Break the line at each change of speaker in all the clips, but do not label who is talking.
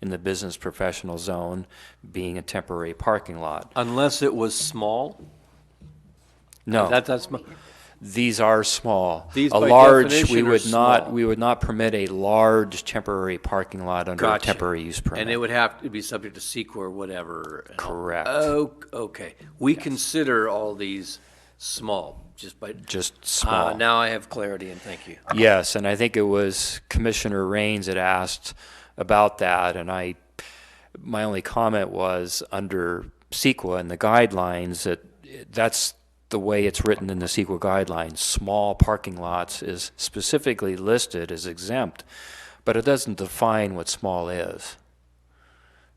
in the business professional zone being a temporary parking lot.
Unless it was small?
No,
That, that's my,
these are small.
These
A
by
large, we
definition are
would not,
small.
we would not permit a large temporary parking lot under a
Gotcha.
temporary use permit.
and it would have to be subject to SEQA or whatever.
Correct.
Oh, okay. We consider all these small, just by.
Just
Ah,
small.
Now I have clarity and thank you.
Yes, and I think it was Commissioner Rains that asked about that, and I, my only comment was under CEQA and the guidelines that that's the way it's written in the CEQA guidelines. Small parking lots is specifically listed as exempt, but it doesn't define what small is.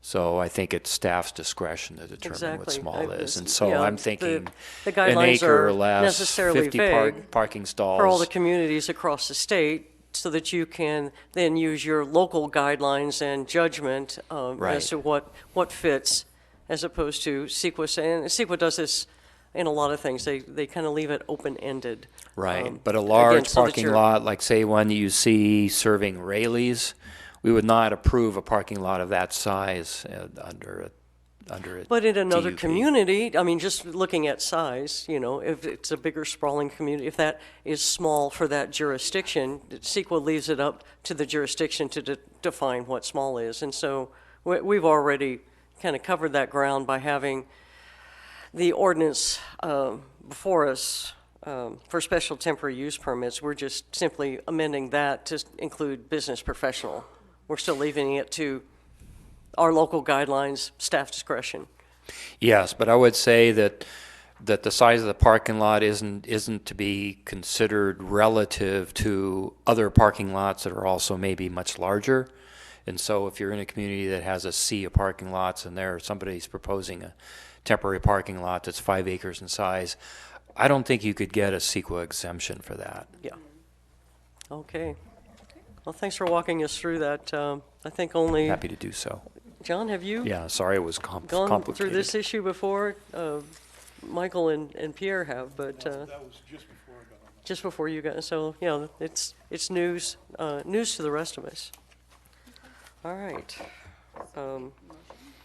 So I think it's staff's discretion to determine what
Exactly.
small
I
is,
was-
and so
yeah,
I'm
the-
thinking
the
an
guidelines
acre or
are
less,
necessarily
fifty par-
vague
parking stalls.
for all the communities across the state so that you can then use your local guidelines and judgment um,
Right.
as to what, what fits as opposed to CEQA. And CEQA does this in a lot of things. They, they kind of leave it open-ended. um,
Right, but a
again,
large
so that
parking
you're-
lot, like say one you see serving Rayleigh's, we would not approve a parking lot of that size uh, under a, under a.
But in another
DUP.
community, I mean, just looking at size, you know, if it's a bigger sprawling community, if that is small for that jurisdiction, CEQA leaves it up to the jurisdiction to de- define what small is. And so we, we've already kind of covered that ground by having the ordinance um, before us um, for special temporary use permits. We're just simply amending that to include business professional. We're still leaving it to our local guidelines, staff discretion.
Yes, but I would say that, that the size of the parking lot isn't, isn't to be considered relative to other parking lots that are also maybe much larger. And so if you're in a community that has a sea of parking lots and there, somebody's proposing a temporary parking lot that's five acres in size, I don't think you could get a CEQA exemption for that.
Yeah. Okay. Well, thanks for walking us through that. Um, I think only,
Happy to do so.
John, have you
Yeah, sorry it was com-
gone through this
complicated.
issue before? Uh, Michael and and Pierre have, but uh,
That was just before I got on.
just before you got, so, you know, it's, it's news, uh, news to the rest of us. All right. Um,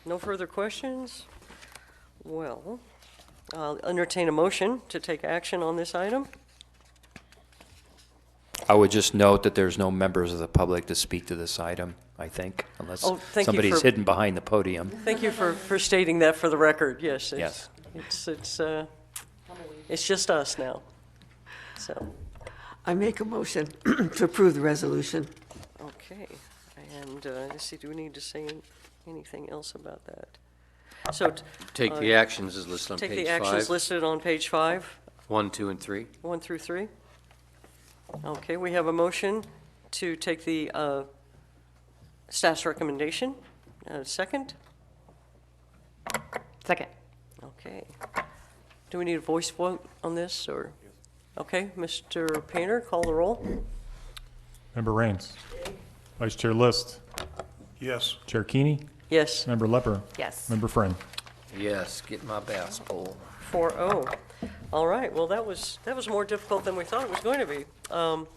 No further questions? Well, I'll entertain a motion to take action on this item.
I would just note that there's no members of the public to speak to this item, I think, unless
Oh, thank you
somebody's
for-
hidden behind the podium.
Thank you for, for stating that for the record, yes. it's-
Yes.
It's, it's, uh, it's just us now. So,
I make a motion to approve the resolution.
okay. And, uh, let's see, do we need to say an- anything else about that? So t-
Take the actions as listed on
take the
page
actions
five,
listed on page five,
one, two, and three.
one through three. Okay, we have a motion to take the, uh, staff's recommendation. Uh, second?
Second.
Okay. Do we need a voice vote on this, or? Okay, Mr. Painter, call the roll.
Member Rains. Vice Chair List.
Yes.
Chair Keeney.
Yes,
Member Lepper.
Yes.
Member Friend.
Yes, get my bass pole.
4-0. oh. All right, well, that was, that was more difficult than we thought it was going to be. Um,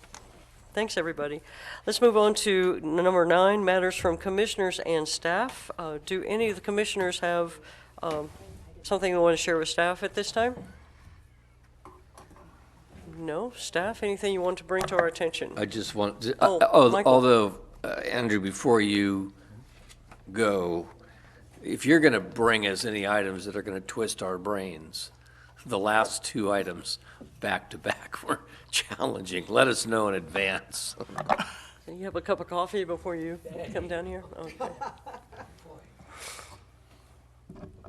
Thanks, everybody. Let's move on to n- number nine, matters from commissioners and staff. Uh, Do any of the commissioners have um, something they want to share with staff at this time? No? Staff, anything you want to bring to our attention?
I just want, uh,
Oh,
al-
Michael.
although, uh, Andrew, before you go, if you're going to bring us any items that are going to twist our brains, the last two items back to back were challenging. Let us know in advance.
You have a cup of coffee before you come down here? Okay.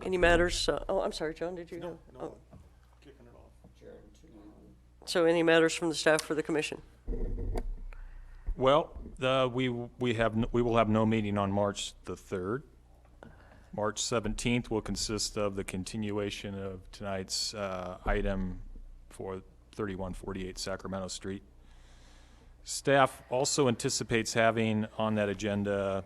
Any matters, uh, oh, I'm sorry, John, did you? No,
Kicking it off.
So any matters from the staff for the commission?
Well, the, we, we have, n- we will have no meeting on March the 3rd. March 17th will consist of the continuation of tonight's uh, item for 3148 Sacramento Street. Staff also anticipates having on that agenda,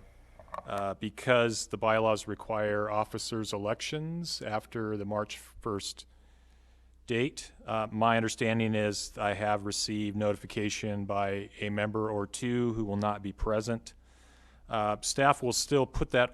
uh, because the bylaws require officers' elections after the March 1st date. Uh, My understanding is I have received notification by a member or two who will not be present Uh, Staff will still put that